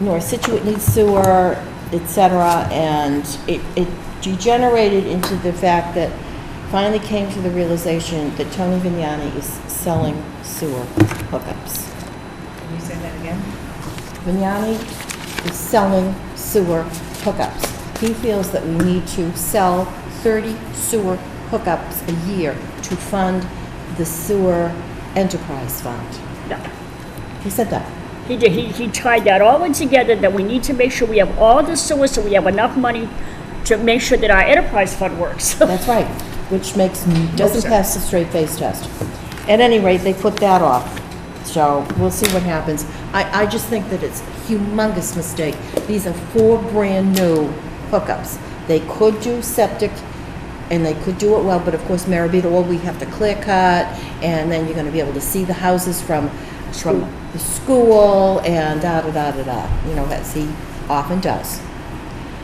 North Situate needs sewer, et cetera, and it, it degenerated into the fact that finally came to the realization that Tony Vignani is selling sewer hookups. Can you say that again? Vignani is selling sewer hookups. He feels that we need to sell 30 sewer hookups a year to fund the sewer enterprise fund. No. He said that. He did, he, he tied that all in together, that we need to make sure we have all the sewers, so we have enough money to make sure that our enterprise fund works. That's right, which makes, doesn't sir. pass the straight face test. At any rate, they put that off, so we'll see what happens. I, I just think that it's a humongous mistake. These are four brand-new hookups. They could do septic, and they could do it well, but of course, Marabito, well, we have to clear cut, and then you're gonna be able to see the houses from, from the school, and da-da-da-da-da, you know, as he often does.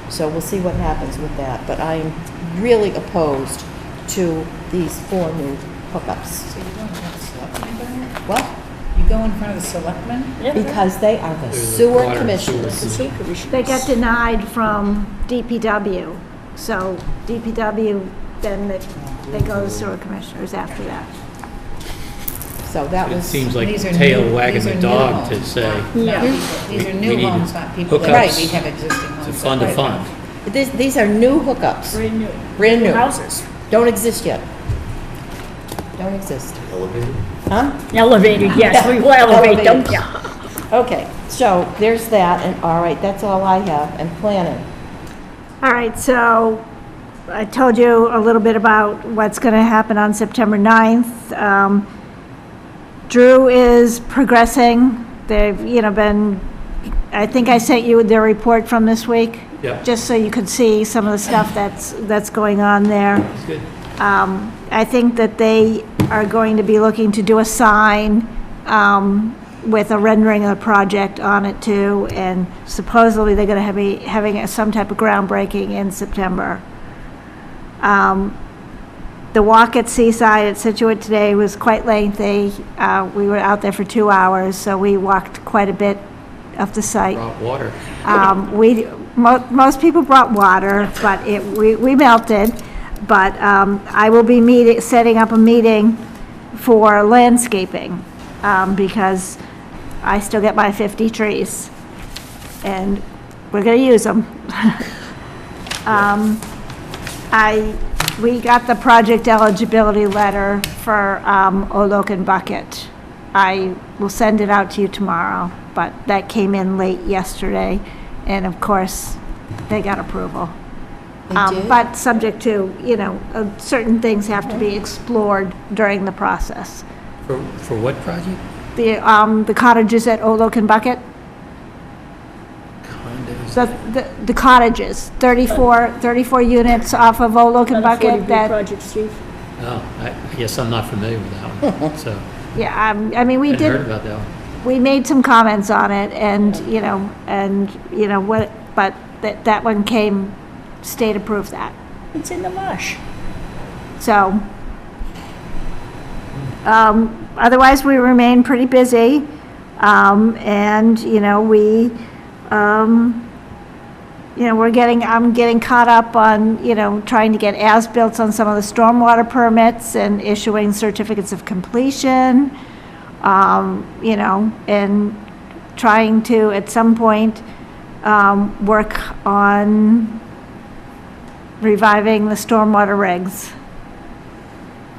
So we'll see what happens with that, but I am really opposed to these four new hookups. So you go in front of the selectmen about What? it? You go in front of the selectmen? Yeah. Because they are the the sewer water and commissioners. sewer. It's like we should- They got denied from DPW, so DPW, then they- they go to sewer commissioners after that. So that It was, seems like These the are tail new- wagging these are the new dog to homes, say, not- Yeah. not people. These are we new need homes, not people that hookups already have existing homes. to fund a Right. fund. these, these are new hookups, Brand new. brand new, Houses, don't exist yet. Don't exist. Elevated? Huh? elevated, yes, we will elevate them, Elevated. yeah. Okay, so there's that, and all right, that's all I have, and planning. All right, so I told you a little bit about what's going to happen on September 9th. Um, Drew is progressing. They've, you know, been, I think I sent you their report from this week. Yeah. Just so you could see some of the stuff that's, that's going on there. It's good. Um, I think that they are going to be looking to do a sign um, with a rendering of the project on it too, and supposedly they're going to be having some type of groundbreaking in September. Um, The walk at Seaside at Situate today was quite lengthy. Uh, We were out there for two hours, so we walked quite a bit of the site. Brought water. Um, We, mo- most people brought water, but it, we we melted. But um, I will be meeting, setting up a meeting for landscaping, um, because I still get my 50 trees, and we're going to use them. I, we got the project eligibility letter for um, Olok and Bucket. I will send it out to you tomorrow, but that came in late yesterday, and of course, they got approval. Um, did? But subject to, you know, uh, certain things have to be explored during the process. For, for what project? The um, the cottages at Olok and Bucket, Condos. the- the the cottages, 34, 34 units off of Olok and Another 40B Bucket that Project, Steve. Oh, I, I guess I'm not familiar with that one, so. Yeah, um, I mean, we Hadn't heard did, about that one. we made some comments on it and, you know, and, you know, what, but that, that one came, state approved that. It's in the marsh. So, um, otherwise, we remain pretty busy. Um, and, you know, we, um, you know, we're getting, I'm getting caught up on, you know, trying to get as-built on some of the stormwater permits and issuing certificates of completion. Um, you know, and trying to, at some point, um, work on reviving the stormwater regs.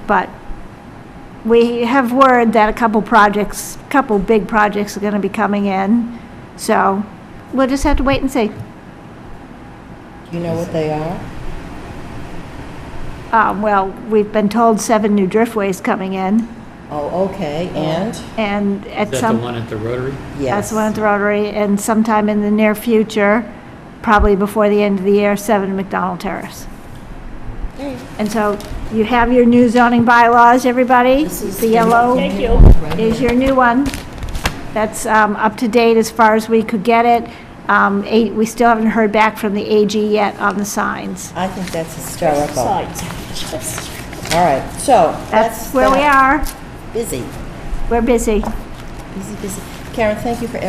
But we have word that a couple projects, couple big projects are gonna be coming in, so we'll just have to wait and see. Do you know what they are? Uh, well, we've been told seven new driftways coming in, Oh, okay, and? and Is at that the some, one at the Rotary? that's Yes. the one at the Rotary, and sometime in the near future, probably before the end of the year, seven McDonald Terrace. And so you have your new zoning bylaws, everybody, This is the yellow. Thank you. is your new one. That's um, up to date as far as we could get it. Um, a- We still haven't heard back from the AG yet on the signs. I think that's hysterical. All Sides. Just- right, so. That's where we that. are. Busy, We're busy. busy, busy. Karen, thank you for